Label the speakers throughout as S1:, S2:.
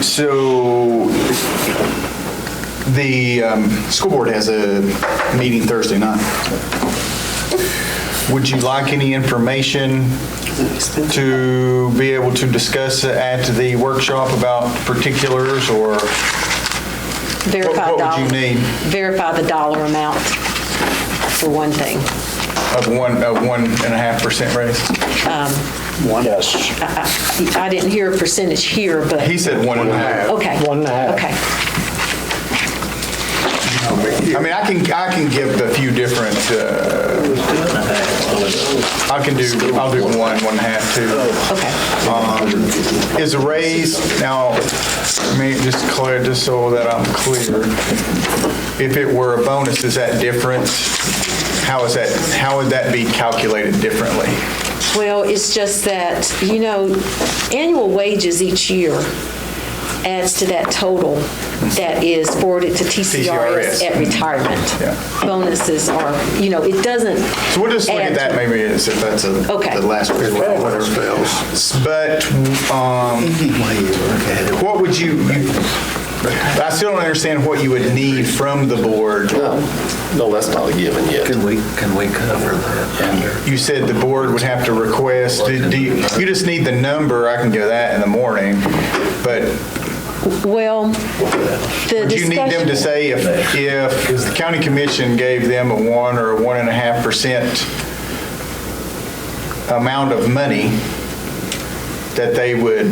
S1: So the um, school board has a meeting Thursday night. Would you like any information to be able to discuss at the workshop about particulars or
S2: Verify
S1: What- what
S2: dollar.
S1: would you need?
S2: Verify the dollar amount, for one thing.
S1: of one, of one and a half percent raise?
S3: Yes.
S2: I didn't hear a percentage here, but,
S1: He said one and a half.
S2: okay.
S3: One and a half.
S2: Okay.
S1: I mean, I can, I can give a few different, uh, I can do, I'll do one, one and a half, two.
S2: Okay,
S1: is a raise, now, let me just clear, just so that I'm clear, if it were a bonus, is that different? How is that, how would that be calculated differently?
S2: well, it's just that, you know, annual wages each year adds to that total that is forwarded to TCRS
S1: TCRS.
S2: at retirement.
S1: Yeah.
S2: Bonuses are, you know, it doesn't.
S1: So we'll just look at
S2: add
S1: that
S2: to-
S1: maybe, as if that's a-
S2: Okay.
S1: the last one, whatever. But, um, what would you, you- I still don't understand what you would need from the board.
S4: No, that's not a given yet.
S5: Can we, can we cover that under?
S1: You said the board would have to request, do do you, you just need the number, I can give that in the morning, but
S2: Well, the
S1: Would you need them to
S2: discussion-
S1: say if, if the county commission gave them a one or a one and a half percent amount of money, that they would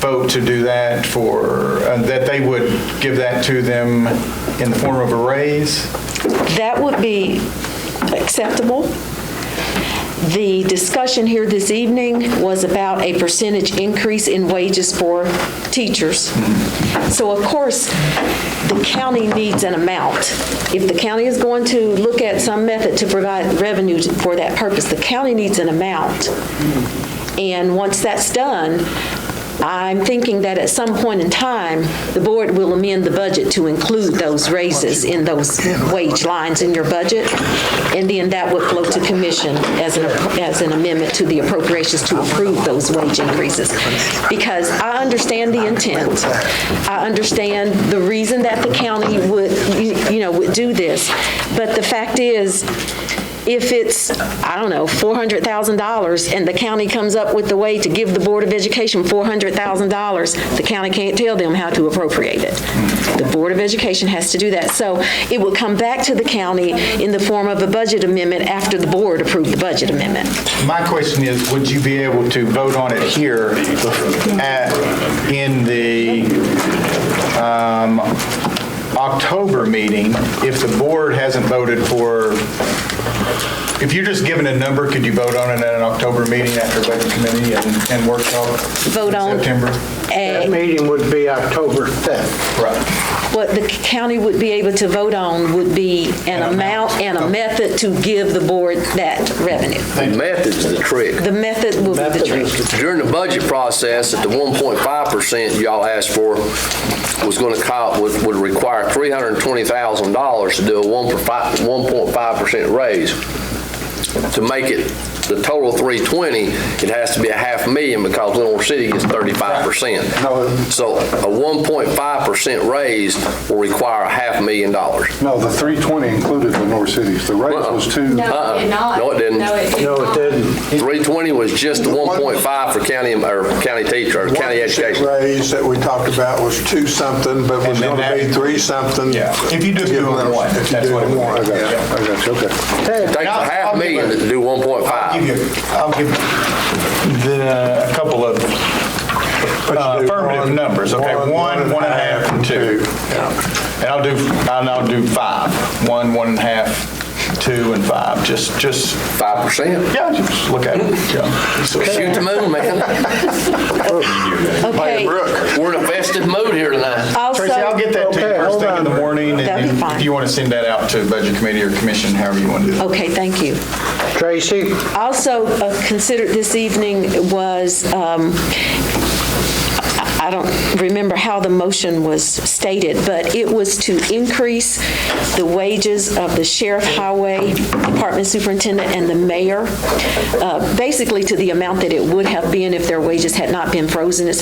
S1: vote to do that for, uh, that they would give that to them in the form of a raise?
S2: That would be acceptable. The discussion here this evening was about a percentage increase in wages for teachers. So of course, the county needs an amount. If the county is going to look at some method to provide revenue for that purpose, the county needs an amount. And once that's done, I'm thinking that at some point in time, the board will amend the budget to include those raises in those wage lines in your budget, and then that would flow to commission as an, as an amendment to the appropriations to approve those wage increases. Because I understand the intent, I understand the reason that the county would, you you know, would do this, but the fact is, if it's, I don't know, $400,000, and the county comes up with the way to give the Board of Education $400,000, the county can't tell them how to appropriate it. The Board of Education has to do that. So it will come back to the county in the form of a budget amendment after the board approved the budget amendment.
S1: My question is, would you be able to vote on it here at, in the um, October meeting if the board hasn't voted for, if you're just given a number, could you vote on it at an October meeting after budget committee and- and workshop? in
S2: Vote on-
S1: September?
S3: That meeting would be October 5th.
S1: Right.
S2: What the county would be able to vote on would be an amount and a method to give the board that revenue.
S4: The method's the trick.
S2: The method will be the trick.
S4: During the budget process, at the 1.5% y'all asked for was going to cost, would would require $320,000 to do a 1.5% raise. To make it the total 320, it has to be a half million because Little Rock City gets 35%. So a 1.5% raise will require a half million dollars.
S6: No, the 320 included the North Cities. The raise was two.
S7: No, it did not.
S4: No, it didn't.
S7: No, it did
S3: No, it
S7: not.
S3: didn't.
S4: 320 was just the 1.5 for county, or county teacher, or county education.
S8: Raise that we talked about was two something, but was
S1: And then
S8: going to
S1: that-
S8: be three something.
S1: Yeah. If you just do it one,
S8: If you
S1: that's
S8: do
S1: what it would
S8: one,
S1: be.
S8: I got you,
S1: Yeah.
S8: I got you, okay.
S4: Takes a half million to do
S1: I'll give
S4: 1.5.
S1: you, I'll give the, a couple of uh,
S8: do
S1: affirmative
S8: one,
S1: numbers, okay?
S8: one,
S1: One, one and a half, and two. And I'll do, and I'll do five. One, one and a half, two, and five, just, just,
S4: 5%.
S1: yeah, just look at it. yeah. So-
S4: Shoot the moon, man.
S2: Okay,
S4: We're in a festive mood here tonight.
S2: also.
S1: Tracy, I'll get that to you
S3: Okay,
S1: first
S3: hold
S1: thing in the
S3: on.
S1: morning, and
S2: That'd be
S1: then
S2: fine.
S1: if you want to send that out to Budget Committee or Commission, however you want to do that.
S2: Okay, thank you.
S3: Tracy?
S2: Also uh, considered this evening was, um, I I don't remember how the motion was stated, but it was to increase the wages of the sheriff, highway department superintendent, and the mayor, uh, basically to the amount that it would have been if their wages had not been frozen. It's